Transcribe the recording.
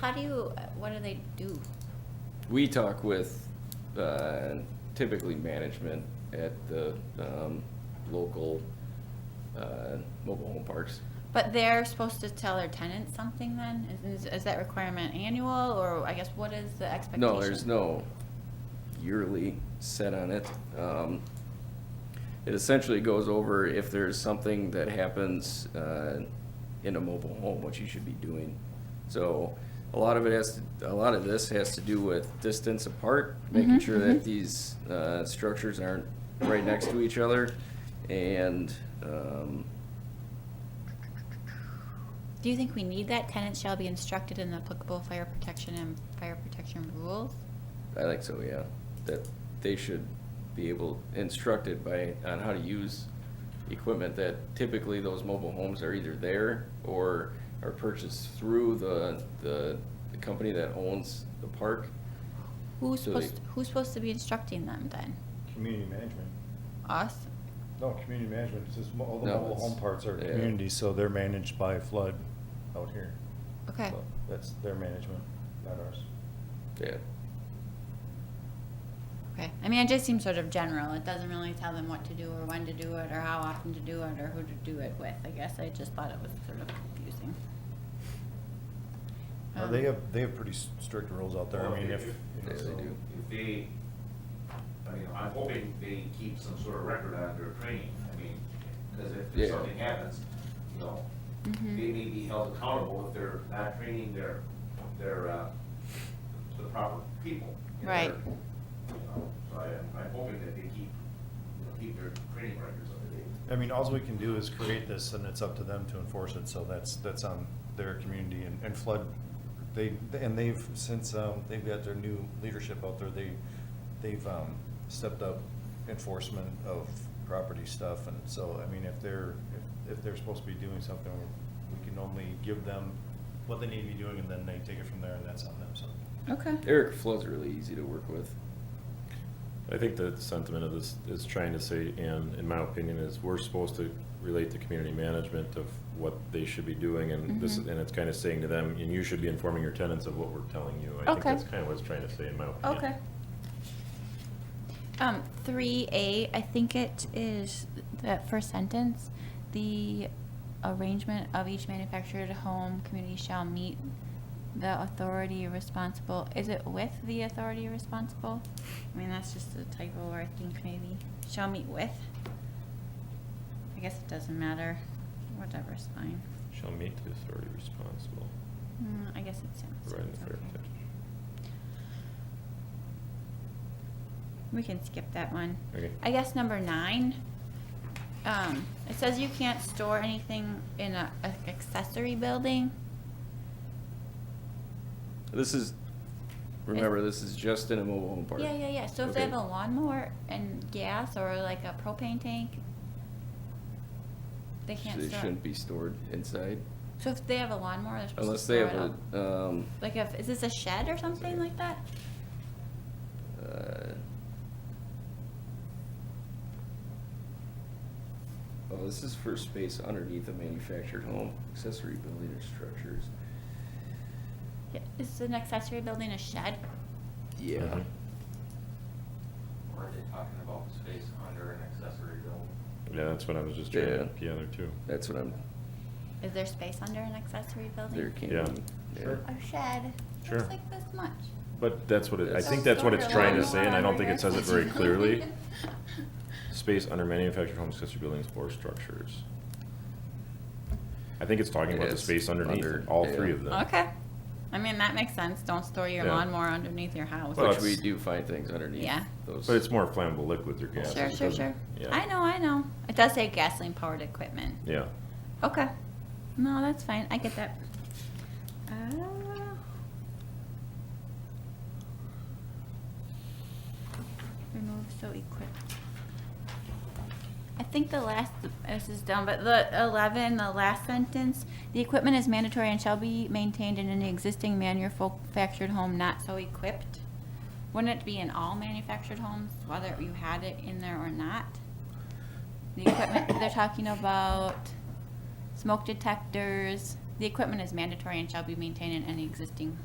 How do you, what do they do? We talk with uh, typically management at the um, local uh, mobile home parks. But they're supposed to tell their tenants something then? Is, is- is that requirement annual or I guess what is the expectation? No, there's no yearly set on it. Um, It essentially goes over if there's something that happens uh, in a mobile home, what you should be doing. So a lot of it has, to- a lot of this has to do with distance apart, making Mhm, sure that mhm. these uh, structures aren't right next to each other. And um, Do you think we need that? Tenants shall be instructed in the applicable fire protection and fire protection rules? I think so, yeah, that they should be able, instructed by, on how to use equipment that typically those mobile homes are either there or are purchased through the, the, the company that owns the park. Who's So they- supposed, who's supposed to be instructing them then? Community management. Us? No, community management, it's just mo- all the No, mobile it's- home parts are yeah. community, so they're managed by flood out here. Okay. So That's their management, not ours. Yeah, Okay. I mean, it just seems sort of general. It doesn't really tell them what to do or when to do it or how often to do it or who to do it with. I guess I just thought it was sort of confusing. Uh, Um, They have, they have pretty s- strict rules out there. I Well, mean, if. Yeah, Oh, they so do. If they, I mean, I'm hoping they keep some sort of record on their training, I mean, because Yeah. if something happens, you know, Mhm. they may be held accountable if they're not training their, their, uh, the proper people. in their- Right. you know, So I, am- I'm hoping that they keep, you know, keep their training records up to date. I mean, alls we can do is create this and it's up to them to enforce it, so that's, that's on their community and, and flood. They, and they've, since, um, they've got their new leadership out there, they, they've, um, stepped up enforcement of property stuff, and so, I mean, if they're, if, if they're supposed to be doing something, we can only give them what they need to be doing, and then they take it from there, and that's on them, so. Okay. Eric Flood's really easy to work with. I think the sentiment of this is trying to say, and in my opinion, is we're supposed to relate to community management of what they should be doing, and this, is- Mhm. and it's kind of saying to them, and you should be informing your tenants of what we're telling you. I think Okay. that's kind of what it's trying to say, in my opinion. Okay. Um, three A, I think it is that first sentence, the arrangement of each manufactured home community shall meet the authority responsible, is it with the authority responsible? I mean, that's just a typo, or I think maybe, shall meet with? I guess it doesn't matter, whatever's fine. Shall meet the authority responsible, Mm, I guess it sounds. providing the fair okay. protection. We can skip that one. Okay. I guess number nine, um, it says you can't store anything in a, a accessory building. This is, remember, this is just in a mobile home park. Yeah, yeah, yeah. So if they Okay. have a lawnmower and gas or like a propane tank, they can't They store. shouldn't be stored inside So if they have a lawnmower, they're supposed to unless they store have it up. a, um, Like if, is this a shed or something like that? Uh, Oh, this is for space underneath a manufactured home, accessory building or structures. Yeah, Is an accessory building a shed? Yeah. Mhm. Or are they talking about the space under an accessory building? Yeah, that's what I was just trying to Yeah. gather too. That's what I'm, Is there space under an accessory building? there can Yeah. be. Sure. A shed. Sure. It's like this much. But that's what it, I That's- think that's what it's Sort of trying to along say, and I the don't think it says it very clearly. lines. Space under manufactured homes, accessory buildings, or structures. I think it's talking about the Yes, space under, underneath, all three yeah. of them. Okay, I mean, that makes sense, don't store your Yeah. lawnmower underneath your house. Well, Which we it's- do find things underneath Yeah. those. But it's more flammable liquids or gases. Sure, it sure, doesn't- sure, yeah. I know, I know, it does say gasoline powered equipment. Yeah. Okay, no, that's fine, I get that. Uh, Remove so equipped. I think the last, this is dumb, but the eleven, the last sentence, the equipment is mandatory and shall be maintained in an existing manufactured home not so equipped. Wouldn't it be in all manufactured homes, whether you had it in there or not? The equipment, they're talking about smoke detectors, the equipment is mandatory and shall be maintained in any existing